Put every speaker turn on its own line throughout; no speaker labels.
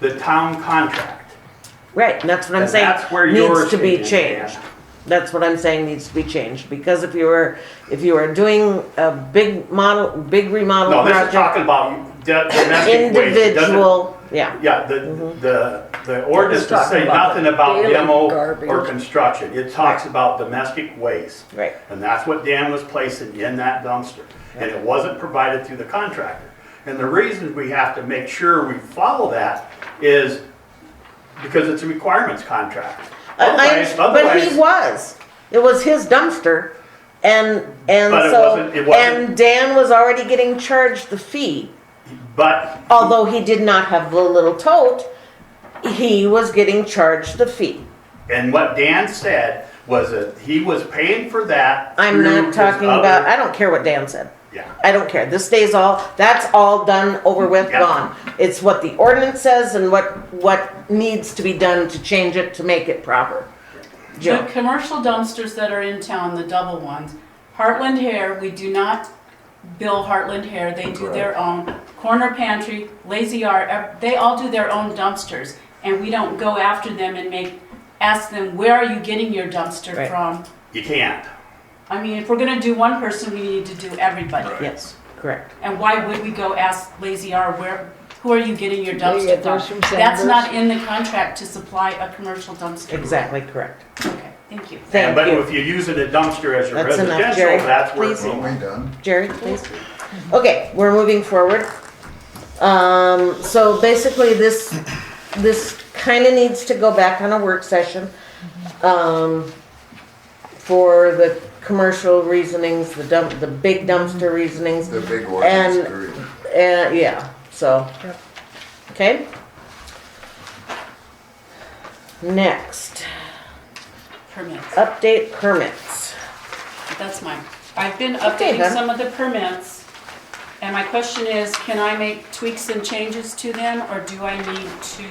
the town contract.
Right, and that's what I'm
And
saying.
that's where
Needs
yours
to be
should be,
changed.
yeah.
That's what I'm saying needs to be changed, because if you were, if you were doing a big model, big remodel
No, this is
project,
talking about do- domestic waste. It doesn't-
individual, Mm-hmm. yeah,
Yeah, the, the, the ordinance
It's
does say
talking about
nothing about
daily
demo
garbage.
or construction. It talks about domestic waste.
Right.
And that's what Dan was placing in that dumpster. And it wasn't provided through the contractor. And the reason we have to make sure we follow that is because it's a requirements contract.
I- I-
Otherwise,
But he
otherwise,
was, it was his dumpster, and, and
But it
so,
wasn't- it wasn't-
and Dan was already getting charged the fee.
but
Although he did not have the little tote, he was getting charged the fee.
And what Dan said was that he was paying for that.
I'm
through
not
his
talking about,
other-
I don't care what Dan said.
Yeah.
I don't care. This stays all, that's all done, over with,
Yeah.
gone. It's what the ordinance says and what, what needs to be done to change it to make it proper.
The
Joe,
commercial dumpsters that are in town, the double ones, Heartland Hair, we do not bill Heartland Hair, they do their own. Corner Pantry, Lazy Art, ev- they all do their own dumpsters, and we don't go after them and make, ask them, where are you getting your dumpster
Right.
from?
You can't.
I mean, if we're gonna do one person, we need to do everybody.
yes, correct.
And why would we go ask Lazy R where, who are you getting your
They
dumpster
get theirs
from?
from
That's
Sanders.
not in the contract to supply a commercial dumpster.
Exactly correct.
Okay, thank you.
Thank
But
you.
if you're using a dumpster as your
That's enough,
residential,
Jerry.
that's where it's
Please.
Am
going.
I done?
Jerry, please. Okay, we're moving forward. Um, so basically this, this kinda needs to go back on a work session. Um, for the commercial reasonings, the dump, the big dumpster reasonings.
The big ordinance
And-
period.
Uh, yeah, so.
Yep.
Okay. Next,
Permits.
update permits.
That's mine. I've been
Okay,
updating
then.
some of the permits, and my question is, can I make tweaks and changes to them, or do I need to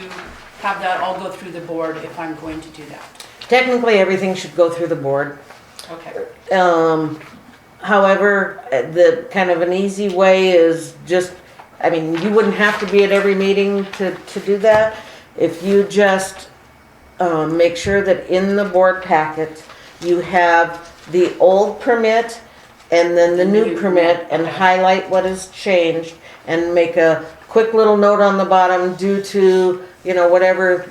have that all go through the board if I'm going to do that?
Technically, everything should go through the board.
Okay,
Um, however, uh, the kind of an easy way is just, I mean, you wouldn't have to be at every meeting to, to do that. If you just, um, make sure that in the board packet, you have the old permit and then the new
New.
permit and highlight what has changed and make a quick little note on the bottom due to, you know, whatever,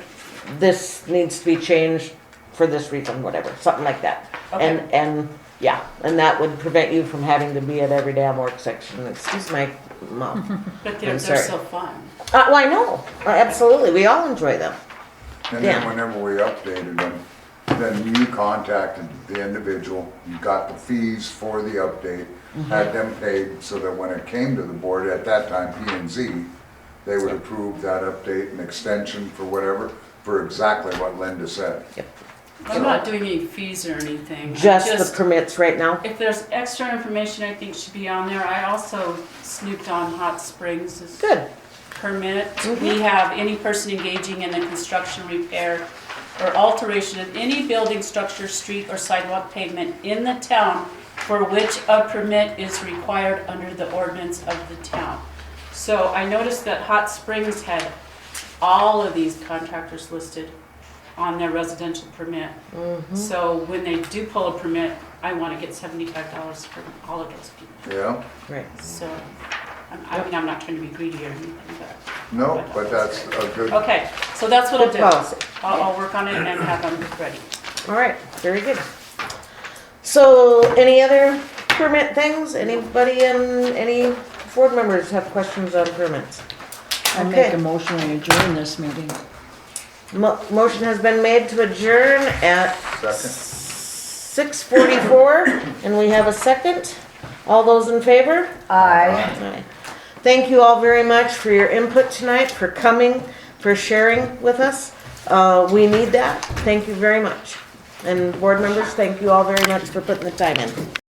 this needs to be changed for this reason, whatever, something like that. And, and, yeah, and that would prevent you from having to be at every damn work section, excuse my mom.
but they're,
I'm
they're
sorry.
so fun.
Uh, well, I know, absolutely, we all enjoy them.
And then
Yeah.
whenever we updated them, then you contacted the individual, you got the fees for the update,
Mm-hmm.
had them paid so that when it came to the board, at that time P and Z, they would approve that update and extension for whatever, for exactly what Linda said.
I'm not doing any fees or anything. I'm
Just the permits right now?
If there's extra information I think should be on there, I also snooped on Hot Springs'
Good,
permit, we have any person engaging in the construction, repair, or alteration of any building, structure, street, or sidewalk pavement in the town for which a permit is required under the ordinance of the town. So I noticed that Hot Springs had all of these contractors listed on their residential permit. So when they do pull a permit, I want to get seventy-five dollars from all of those people.
Yeah?
right.
So, I'm- I mean, I'm not trying to be greedy or anything, but,
No, but that's a good,
okay, so that's what I'll
Good
do.
policy.
I'll, I'll work on it and have them ready.
All right, very good. So, any other permit things? Anybody in, any board members have questions on permits?
I make
Okay.
a motion to adjourn this meeting.
Mo- Motion has been made to adjourn at
second,
six forty-four, and we have a second. All those in favor?
Aye.
Aye. Thank you all very much for your input tonight, for coming, for sharing with us. Uh, we need that. Thank you very much. And board members, thank you all very much for putting the time in.